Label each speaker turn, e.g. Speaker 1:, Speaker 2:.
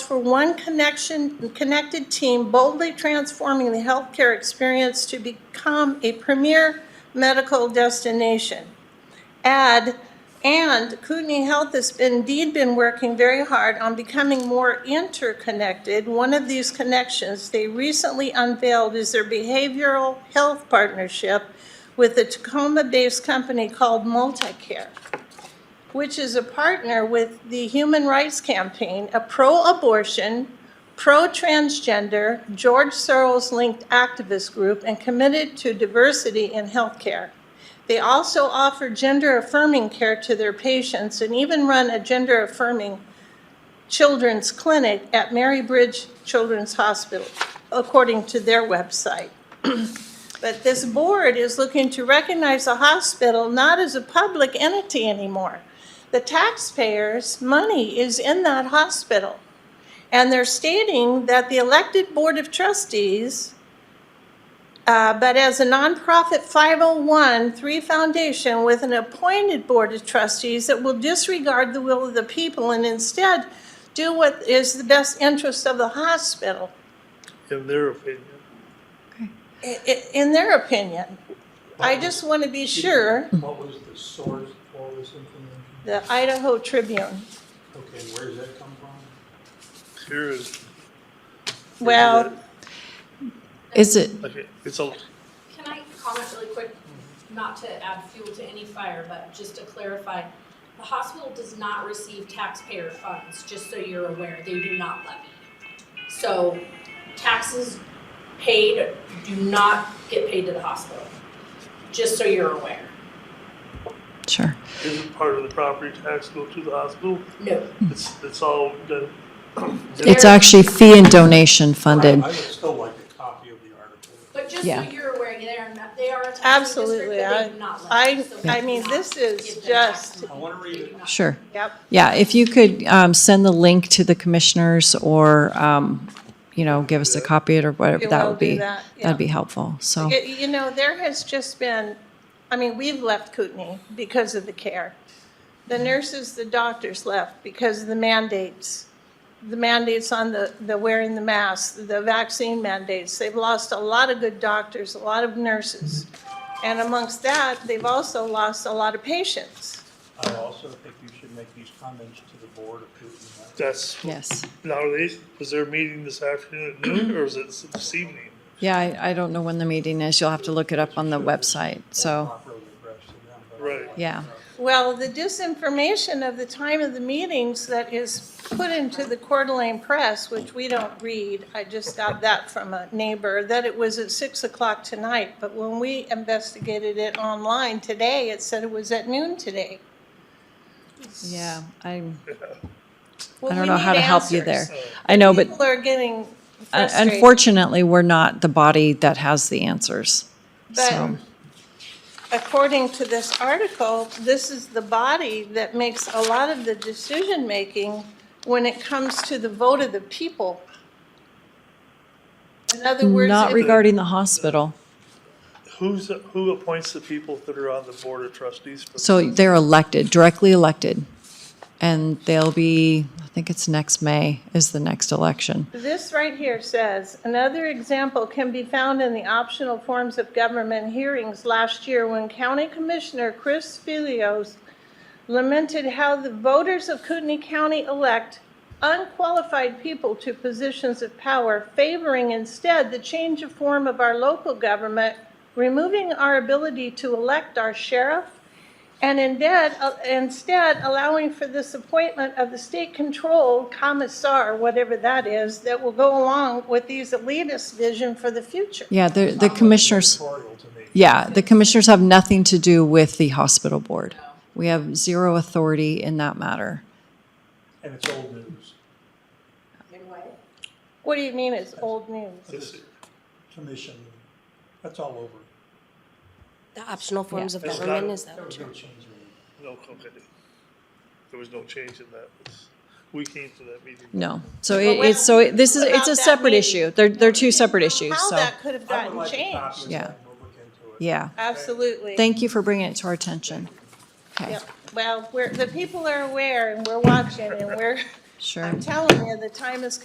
Speaker 1: for one connection, connected team boldly transforming the healthcare experience to become a premier medical destination. Add, and Kootenai Health has been- indeed been working very hard on becoming more interconnected. One of these connections they recently unveiled is their behavioral health partnership with a Tacoma-based company called Multicare which is a partner with the Human Rights Campaign, a pro abortion, pro transgender, George Soros linked activist group, and committed to diversity in healthcare. They also offer gender affirming care to their patients and even run a gender affirming children's clinic at Marybridge Children's Hospital, according to their website. But this board is looking to recognize the hospital not as a public entity anymore. The taxpayers' money is in that hospital. And they're stating that the elected Board of Trustees, uh, but as a nonprofit 501(c)(3) foundation with an appointed Board of Trustees that will disregard the will of the people and instead do what is the best interest of the hospital,
Speaker 2: in their opinion.
Speaker 1: i- i- in their opinion. I just want to be sure.
Speaker 3: What was the source for this information?
Speaker 1: the Idaho Tribune.
Speaker 3: Okay, where does that come from?
Speaker 2: Here is,
Speaker 1: Well,
Speaker 4: Is it,
Speaker 2: okay, it's a,
Speaker 5: Can I comment really quick, not to add fuel to any fire, but just to clarify? The hospital does not receive taxpayer funds, just so you're aware, they do not levy. So taxes paid do not get paid to the hospital, just so you're aware.
Speaker 4: sure.
Speaker 2: isn't part of the property tax go to the hospital.
Speaker 5: No,
Speaker 2: It's, it's all done.
Speaker 4: It's actually fee and donation funded.
Speaker 3: I would still like a copy of the article.
Speaker 5: but just so
Speaker 4: Yeah.
Speaker 5: you're aware, they are not, they are a taxing district,
Speaker 1: Absolutely,
Speaker 5: but
Speaker 1: I-
Speaker 5: they do not
Speaker 1: I-
Speaker 5: levy. So
Speaker 1: I
Speaker 5: we
Speaker 1: mean,
Speaker 5: do
Speaker 1: this
Speaker 5: not
Speaker 1: is
Speaker 5: give them
Speaker 1: just-
Speaker 5: tax money.
Speaker 3: I wanna read
Speaker 5: They
Speaker 3: it.
Speaker 5: do not.
Speaker 4: Sure.
Speaker 1: yep,
Speaker 4: Yeah, if you could um, send the link to the commissioners or, um, you know, give us a copy of it or whatever,
Speaker 1: We
Speaker 4: that
Speaker 1: will
Speaker 4: would
Speaker 1: do
Speaker 4: be,
Speaker 1: that, yeah.
Speaker 4: that'd be helpful, so.
Speaker 1: Y- you know, there has just been, I mean, we've left Kootenai because of the care. The nurses, the doctors left because of the mandates, the mandates on the, the wearing the mask, the vaccine mandates. They've lost a lot of good doctors, a lot of nurses. And amongst that, they've also lost a lot of patients.
Speaker 3: I also think you should make these comments to the board of Putin.
Speaker 2: That's,
Speaker 4: Yes.
Speaker 2: now are they, was their meeting this afternoon at noon or is it this evening?
Speaker 4: Yeah, I, I don't know when the meeting is. You'll have to look it up on the website, so,
Speaker 3: Properly addressed to them, but-
Speaker 2: Right.
Speaker 4: yeah.
Speaker 1: Well, the disinformation of the time of the meetings that is put into the Coeur d'Alene Press, which we don't read, I just got that from a neighbor, that it was at 6 o'clock tonight, but when we investigated it online today, it said it was at noon today.
Speaker 4: Yeah, I'm,
Speaker 1: Well,
Speaker 4: I
Speaker 1: we
Speaker 4: don't know how
Speaker 1: need
Speaker 4: to help you there.
Speaker 1: answers.
Speaker 4: I know, but
Speaker 1: People are getting
Speaker 4: un-
Speaker 1: frustrated.
Speaker 4: unfortunately, we're not the body that has the answers, so.
Speaker 1: But according to this article, this is the body that makes a lot of the decision-making when it comes to the vote of the people. In other words.
Speaker 4: Not
Speaker 1: if-
Speaker 4: regarding the hospital.
Speaker 2: Who's, who appoints the people that are on the board of trustees? for-
Speaker 4: So they're elected, directly elected. And they'll be, I think it's next May is the next election.
Speaker 1: This right here says, another example can be found in the optional forms of government hearings last year when County Commissioner Chris Filios lamented how the voters of Kootenai County elect unqualified people to positions of power, favoring instead the change of form of our local government, removing our ability to elect our sheriff, and instead, instead allowing for this appointment of the state-controlled commissar, whatever that is, that will go along with these elitist vision for the future.
Speaker 4: Yeah, the, the commissioners,
Speaker 3: Editorial to me.
Speaker 4: yeah, the commissioners have nothing to do with the hospital board. We have zero authority in that matter.
Speaker 3: And it's old news.
Speaker 1: What do you mean it's old news?
Speaker 3: This commission, that's all over.
Speaker 6: The optional forms of
Speaker 2: It's not-
Speaker 6: government is that
Speaker 3: There
Speaker 6: what
Speaker 3: was
Speaker 6: you're?
Speaker 3: no change in it.
Speaker 2: No, okay. There was no change in that. We came to that meeting.
Speaker 4: No. So it, it's, so it- this is, it's a separate issue. They're, they're two separate issues,
Speaker 1: How
Speaker 4: so,
Speaker 1: that could have
Speaker 3: I would
Speaker 1: gotten
Speaker 3: like a copy
Speaker 1: changed?
Speaker 3: of
Speaker 4: Yeah.
Speaker 3: that and we'll look into it.
Speaker 4: yeah.
Speaker 1: Absolutely.
Speaker 4: Thank you for bringing it to our attention. Okay,
Speaker 1: Yep. Well, we're, the people are aware and we're watching and we're,
Speaker 4: sure.
Speaker 1: I'm telling you, the time is